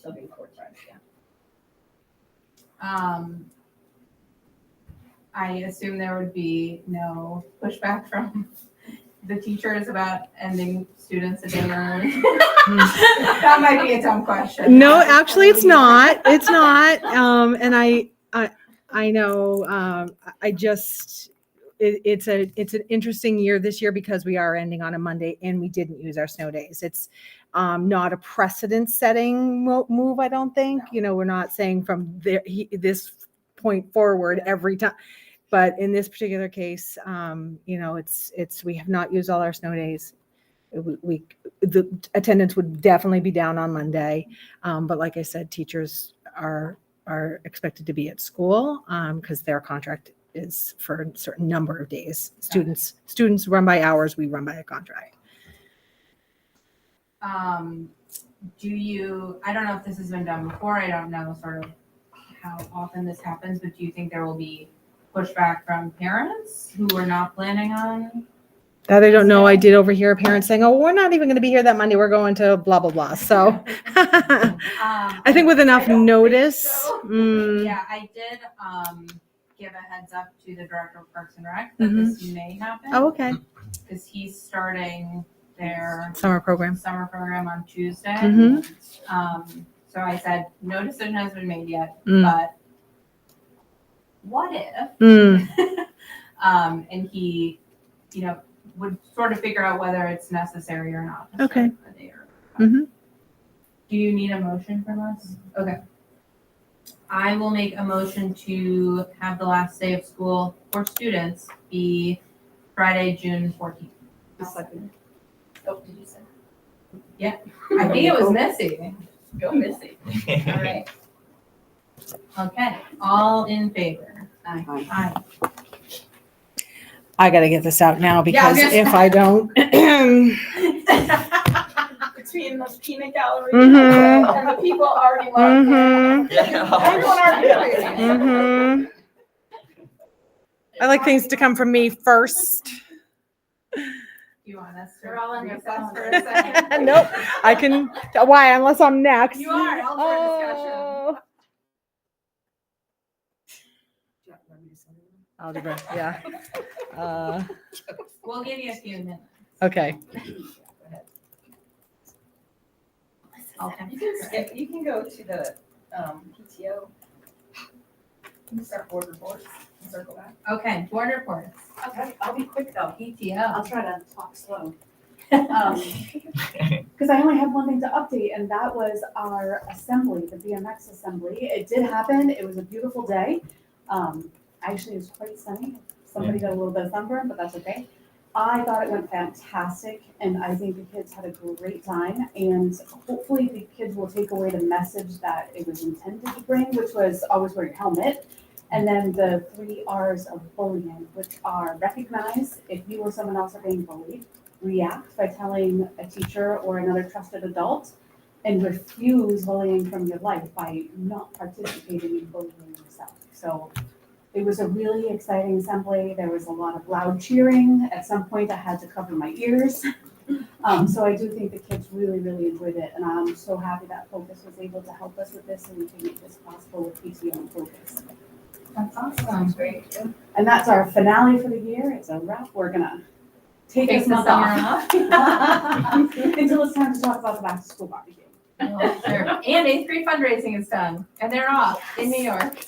It'll be four times, yeah. Um, I assume there would be no pushback from the teachers about ending students a day early. That might be a dumb question. No, actually, it's not. It's not. Um, and I, I, I know. Um, I- I just, it, it's a, it's an interesting year this year because we are ending on a Monday and we didn't use our snow days. It's um, not a precedent-setting mo- move. I don't think. You know, we're not saying from there he, this point forward every time. But in this particular case, um, you know, it's it's we have not used all our snow days. We, we the attendance would definitely be down on Monday. Um, but like I said, teachers are are expected to be at school because their contract is for a certain number of days. Students students run by hours. We run by a contract. Um, do you, I don't know if this has been done before, I don't know sort of how often this happens, but do you think there will be pushback from parents who are not planning on? That I don't know. I did overhear a parent saying, "Oh, we're not even going to be here that Monday. We're going to blah blah blah." So I Um, think with I enough don't think notice. so. mm, Yeah, I did, um, give a heads up to the director of Parks and Rec that this may Oh, happen, okay. because he's starting their Summer program. summer program on Tuesday. Mhm. Um, so I said, no decision has been made yet, Mm, but what if? mm, Um, and he, you know, would sort of figure out whether it's necessary or not. to Okay. start the day or- Mhm. Do you need a motion from us? Okay. I will make a motion to have the last day of school for students be Friday, June fourteenth. Oh, did you say? I think it was Missy. Go Missy. All right. Okay, all in favor? Aye. Aye. I got to get this out now Yeah, I because was gonna if I don't. Between the peanut gallery Mhm. and the people already love her. Mhm, 哎 Everyone already loves her. mhm. I like things to come from me first. You want us to? We're all in recess recess. for a second? Nope, I can, why, unless I'm next. You are, all for discussion. Oh. Algebra, yeah. Uh, We'll give you a few minutes. Okay, Okay. You can skip, you can go to the, um, PTO. You can start board reports and circle back. Okay, board reports, E Okay, I'll be quick though. PTO. I'll try to talk slow. Um, Because I only have one thing to update, and that was our assembly, the BMX assembly. It did happen. It was a beautiful day. Um, Actually, it was quite sunny. Somebody got a little bit of sunburn, but that's okay. I thought it went fantastic, and I think the kids had a great time. And hopefully, the kids will take away the message that it was intended to bring, which was always wear your helmet. And then the three Rs of bullying, which are recognize if you or someone else are being bullied, react by telling a teacher or another trusted adult, and refuse bullying from your life by not participating in bullying yourself. So it was a really exciting assembly. There was a lot of loud cheering. At some point, I had to cover my ears. Um, so I do think the kids really, really enjoyed it, and I'm so happy that Focus was able to help us with this and to make this possible with PTO and Focus. That's awesome. Great. And that's our finale for the year. It's a wrap. We're gonna take Take this the month summer off off. until it's time to talk about the back to school barbecue. Oh, Sure. And eighth grade fundraising is done, and they're off in New York.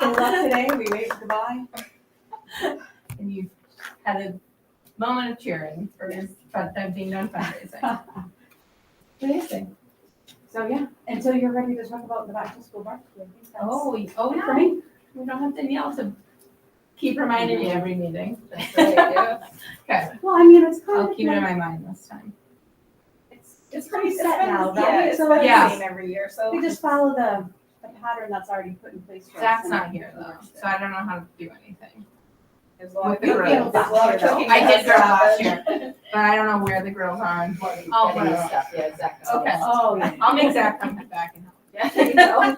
They left today. We waved goodbye. And you've had a moment of cheering for this, but them being done fundraising. Amazing. So yeah, until you're ready to talk about the back to school barbecue. I think that's Oh, we- oh, it for no, me. we don't have to yell to keep reminding you every meeting. That's right, yeah. Okay, Well, I mean, it's I'll kind of keep it in like, my mind this time. it's, it's pretty set now, right? Yeah, it's So been the Yeah. same every year, so. we just follow the, the pattern that's already put in place for us. Zach's and not it here though, works so I don't know how to do anything. There's a lot of You grill- peeled there's a lot of last year, cooking though. I did that grill last happens. But I don't know where the grills are and what. Getting I'll put it up. stuff, yeah, exactly. Okay. Oh, yeah. I'll make Zach come back and help. Yeah, there you go.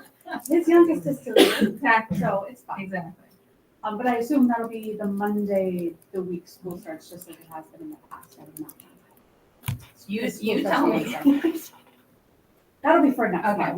His youngest is two, Exactly, so it's fine. exactly. Um, but I assume that'll be the Monday, the week school starts, just like it has been in the past, I would not. You, School you starts tell on me. Wednesday. That'll be for next Okay. month.